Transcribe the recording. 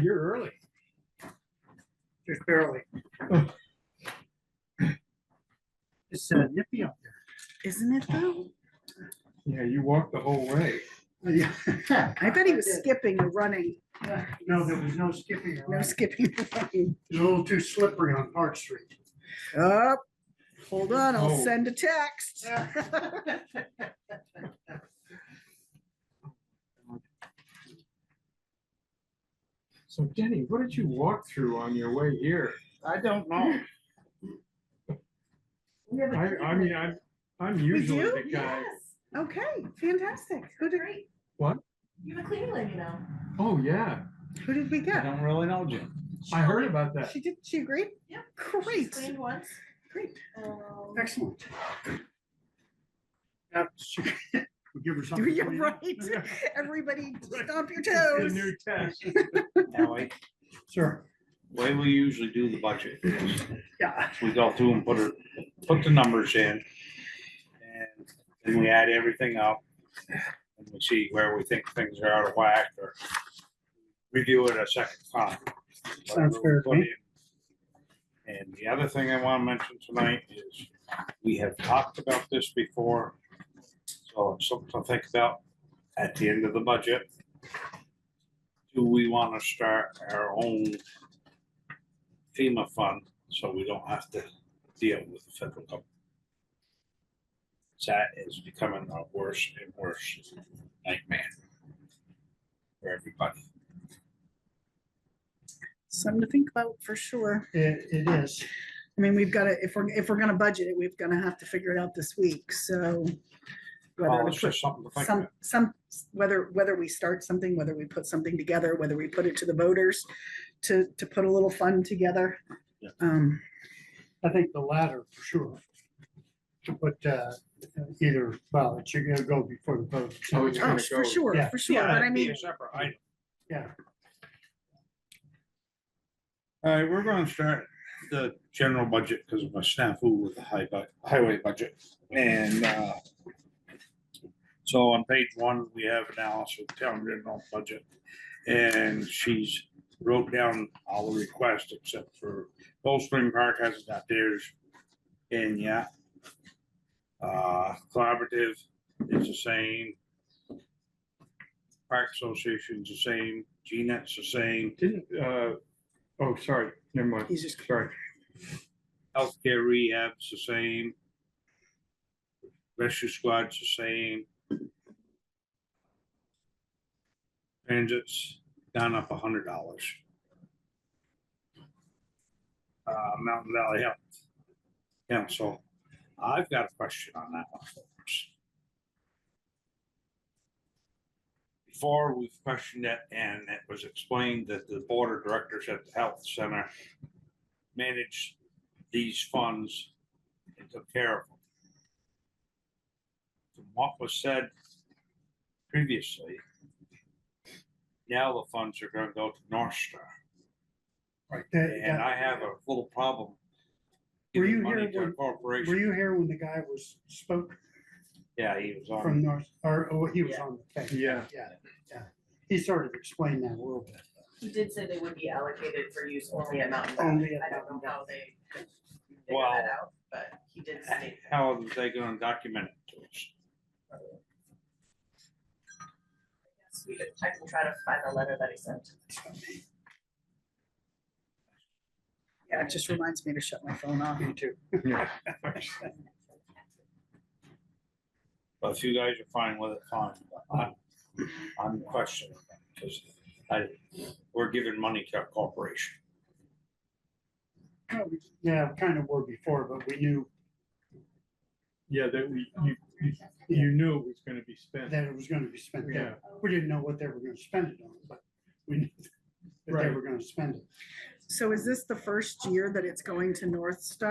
you're early. just barely. It's uh, nippy up there. Isn't it though? Yeah, you walked the whole way. Yeah. I bet he was skipping or running. No, there was no skipping. No around. skipping or running. It's a little too slippery on Park Street. Up. Hold on, I'll Oh. send a text. So Denny, what did you walk through on your way here? I don't know. I, I mean, I'm, I'm usually you? the guy. Okay, fantastic. Who did, You have a cleaning lady now. Oh, yeah. who did we I get? don't really know Jim. I heard about that. She did, she agreed? Yep. She's Great, Cleaned once. great. um, Excellent. That's- we Give her something. to You're clean right. up. Everybody stomp your The toes. new test. Way Sure. we usually do the budget is Yeah. we go through and put it, put the numbers in. And then we add everything up. And we see where we think things are out of whack or review it a second time. Sounds fair to me. And the other thing I want to mention tonight is we have talked about this before. So it's something to think about at the end of the budget. Do we want to start our own FEMA fund so we don't have to deal with the federal government? That is becoming a worse and worse nightmare for everybody. Something to think about for sure. It, it is. I mean, we've got to, if we're, if we're gonna budget it, we've gonna have to figure it out this week, so. Well, whether to it's just Oh, something to think some, about. some, whether, whether we start something, whether we put something together, whether we put it to the voters to, to put a little fund together. Yeah. Um, I think the latter for sure. To put, uh, either, well, it's, you're gonna go before the vote. Oh, it's oh, gonna for go. sure, Yeah. for sure, but I That'd be mean, a separate item. Yeah. All right, we're gonna start the general budget because of my snafu with the high bu- highway budget and uh. So on page one, we have analysis of town general budget and she's wrote down all the requests except for Cold Spring Park has got theirs in yeah. Uh, collaborative is the same. Park Association's the same, E GNET's the same, Didn't, uh, oh, sorry, never mind, he's just, sorry. healthcare rehab's the same. Rescue squad's the same. Transit's down up a hundred dollars. Uh, Mountain Valley Health. Council, I've got a question on that one. folks. Before we've questioned it and it was explained that the board of directors at the health center managed these funds and took care of them. From what was said previously, now the funds are gonna go to North Star, Right. that- and I have a little problem. Were you giving money here to a when- that- Were Corporation, you here when the guy was, spoke yeah, he was on. from North, or, oh, he was on the thing? Yeah, Yeah, yeah. He sort of explained that a little bit. He did say they would be allocated for use only at Mountain Only Valley. at I don't know Mountain how they figured that out, but he did state. How are they gonna document it to us? Yes, We could, I can try to find the letter that he sent. yeah, it just reminds me to shut my phone off. Me too. yeah. But if you guys are fine with it, fine. But I'm- I'm questioning because I, we're giving money to a corporation. Yeah, kind of were before, but we knew Yeah, that we, you, you, you knew it was gonna be spent. that it was gonna be spent there. Yeah, We didn't know what they were gonna spend it on, but we knew that they Right. were gonna spend it. So is this the first year that it's going to North Star?